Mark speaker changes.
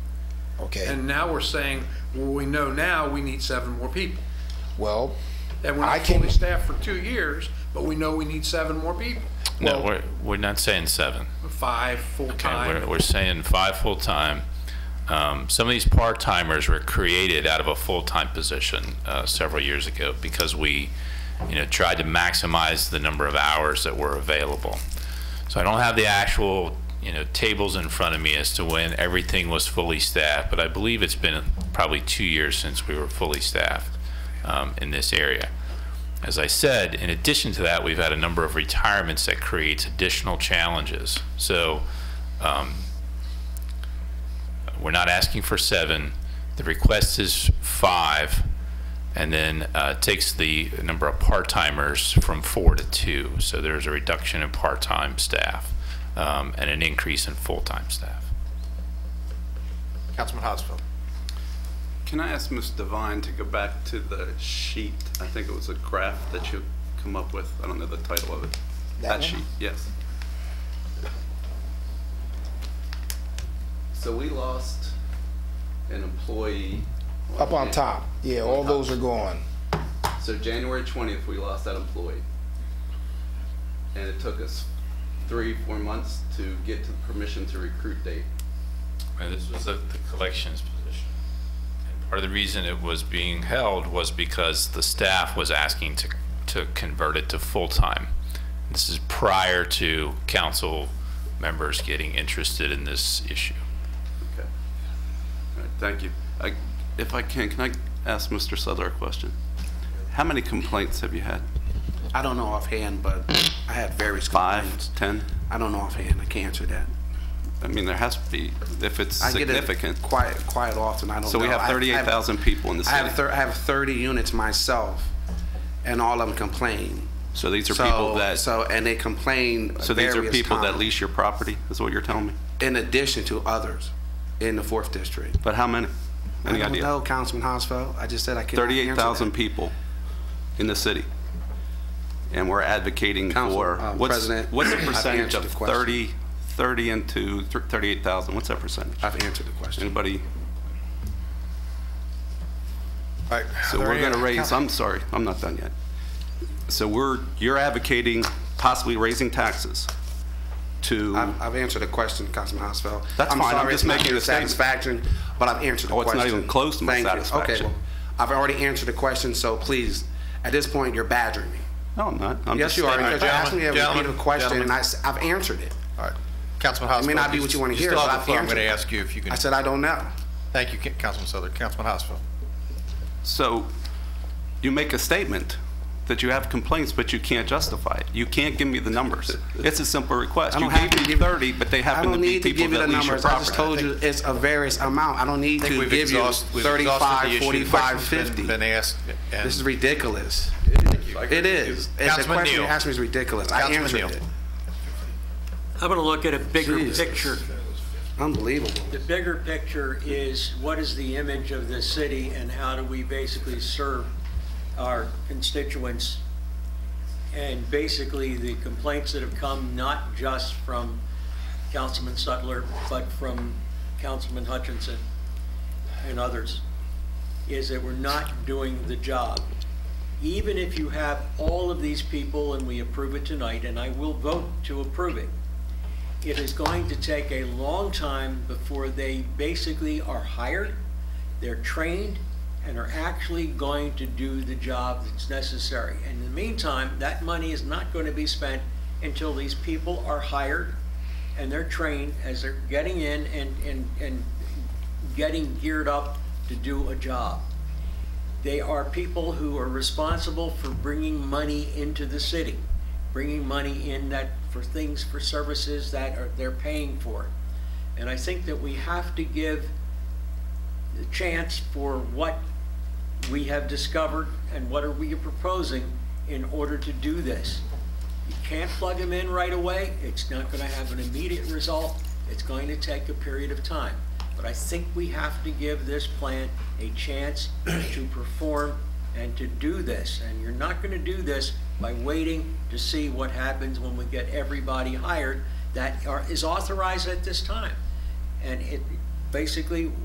Speaker 1: okay?
Speaker 2: And now we're saying, well, we know now we need seven more people.
Speaker 1: Well,
Speaker 2: And we're
Speaker 1: I
Speaker 2: not
Speaker 1: can-
Speaker 2: fully staffed for two years, but we know we need seven more people,
Speaker 3: No,
Speaker 1: Well-
Speaker 3: we're, we're not saying seven.
Speaker 2: five
Speaker 3: Okay,
Speaker 2: full-time.
Speaker 3: we're, we're saying five full-time. Um, some of these part-timers were created out of a full-time position, uh, several years ago because we, you know, tried to maximize the number of hours that were available. So I don't have the actual, you know, tables in front of me as to when everything was fully staffed, but I believe it's been probably two years since we were fully staffed, um, in this area. As I said, in addition to that, we've had a number of retirements that creates additional challenges. So, we're not asking for seven. The request is five, and then uh, takes the number of part-timers from four to two. So there's a reduction in part-time staff um, and an increase in full-time staff.
Speaker 4: Councilman Hosfeld.
Speaker 5: Can I ask Ms. Devine to go back to the sheet? I think it was a graph that you come up with. I don't know the title of it.
Speaker 1: That one?
Speaker 5: sheet, yes. So we lost an employee.
Speaker 1: up on top, yeah, all those are gone.
Speaker 5: So January 20th, we lost that employee. And it took us three, four months to get to the permission to recruit date.
Speaker 3: And this was the the collections position. And Part of the reason it was being held was because the staff was asking to, to convert it to full-time. This is prior to council members getting interested in this issue.
Speaker 5: Okay. All right, thank you. I- If I can, can I ask Mr. Sudler a question? How many complaints have you had?
Speaker 4: I don't know offhand, but I had various complaints.
Speaker 5: Five, 10?
Speaker 4: I don't know offhand. I can't answer that.
Speaker 5: I mean, there has to be, if it's
Speaker 4: I get it
Speaker 5: significant.
Speaker 4: Quite, quite often. I don't know.
Speaker 5: So we have
Speaker 4: I- I
Speaker 5: 38,000 people in the
Speaker 4: I have,
Speaker 5: city.
Speaker 4: thir- I have 30 units myself, and all of them complain.
Speaker 5: So these are
Speaker 4: so,
Speaker 5: people that, so
Speaker 4: So, and they complain.
Speaker 5: these are
Speaker 4: various
Speaker 5: people that
Speaker 4: times,
Speaker 5: lease your property, is what you're telling me?
Speaker 4: In addition to others in the 4th District.
Speaker 5: But how many? Any
Speaker 4: I don't
Speaker 5: idea?
Speaker 4: know, Councilman Hosfeld. I just said I can't.
Speaker 5: 38,000 people in the city. And we're advocating
Speaker 4: Council,
Speaker 5: for,
Speaker 4: um,
Speaker 5: what's,
Speaker 4: President,
Speaker 5: what's the
Speaker 4: I've
Speaker 5: percentage
Speaker 4: answered
Speaker 5: of
Speaker 4: the question.
Speaker 5: 30, 30 into thr- 38,000? What's that percentage?
Speaker 4: I've answered the question.
Speaker 5: Anybody?
Speaker 1: Right.
Speaker 5: So we're going to raise, I'm sorry, I'm not done yet. So we're, you're advocating possibly raising taxes to,
Speaker 4: I've, I've answered the question, Councilman Hosfeld.
Speaker 5: That's
Speaker 4: I'm
Speaker 5: fine, I'm
Speaker 4: sorry
Speaker 5: just
Speaker 4: it's not
Speaker 5: making
Speaker 4: your
Speaker 5: a statement.
Speaker 4: Satisfaction, but I've answered the
Speaker 5: Oh,
Speaker 4: question.
Speaker 5: it's not even close to my
Speaker 4: Thank you.
Speaker 5: satisfaction.
Speaker 4: Okay, well, I've already answered the question, so please, at this point, you're badgering me.
Speaker 5: no, I'm not. I'm
Speaker 4: Yes,
Speaker 5: just uh,
Speaker 4: you are,
Speaker 5: stating-
Speaker 4: because you asked me a
Speaker 6: Gentlemen,
Speaker 4: repeated question,
Speaker 6: gentlemen.
Speaker 4: and I, have answered it.
Speaker 6: All right. Councilman Hosfeld.
Speaker 4: may not be what you wanna
Speaker 6: you
Speaker 4: hear,
Speaker 6: still
Speaker 4: but
Speaker 6: have the
Speaker 4: I've
Speaker 6: floor. I'm going to
Speaker 4: answered.
Speaker 6: ask you if you can.
Speaker 4: I said, I don't know.
Speaker 6: Thank you, Ca- Councilman Southern. Councilman Hosfeld.
Speaker 5: So you make a statement that you have complaints, but you can't justify it. You can't give me the numbers. It's a simple request.
Speaker 4: I
Speaker 5: You
Speaker 4: don't have
Speaker 5: gave
Speaker 4: to
Speaker 5: me
Speaker 4: give you-
Speaker 5: 30, but they
Speaker 4: I
Speaker 5: happen to
Speaker 4: don't
Speaker 5: be
Speaker 4: need to
Speaker 5: people
Speaker 4: give you the
Speaker 5: that lease your
Speaker 4: numbers, I just
Speaker 5: property.
Speaker 4: told you, it's a various amount, I don't need
Speaker 6: I think
Speaker 4: to
Speaker 6: we've
Speaker 4: give you
Speaker 6: exhaust- we've exhausted the
Speaker 4: 35,
Speaker 6: issue.
Speaker 4: 45,
Speaker 6: Questions been-
Speaker 4: 50.
Speaker 6: Been asked. and-
Speaker 4: This is ridiculous. It is. And The
Speaker 6: Councilman
Speaker 4: question you
Speaker 6: Neal.
Speaker 4: asked me is ridiculous, I
Speaker 6: Councilman
Speaker 4: answered
Speaker 6: Neal.
Speaker 4: it.
Speaker 7: I'm going to look at a bigger
Speaker 4: Jesus.
Speaker 7: picture.
Speaker 4: Unbelievable.
Speaker 7: The bigger picture is what is the image of the city and how do we basically serve our constituents? And basically, the complaints that have come not just from Councilman Sutler, but from Councilman Hutchinson and others, is that we're not doing the job. Even if you have all of these people and we approve it tonight, and I will vote to approve it, it is going to take a long time before they basically are hired, they're trained, and are actually going to do the job that's necessary. And in the meantime, that money is not going to be spent until these people are hired and they're trained as they're getting in and, and, and getting geared up to do a job. They are people who are responsible for bringing money into the city, bringing money in that, for things, for services that are, they're paying for. And I think that we have to give the chance for what we have discovered and what are we proposing in order to do this. You can't plug them in right away. It's not going to have an immediate result. It's going to take a period of time. But I think we have to give this plan a chance to perform and to do this. And you're not going to do this by waiting to see what happens when we get everybody hired that are- is authorized at this time. And it, basically,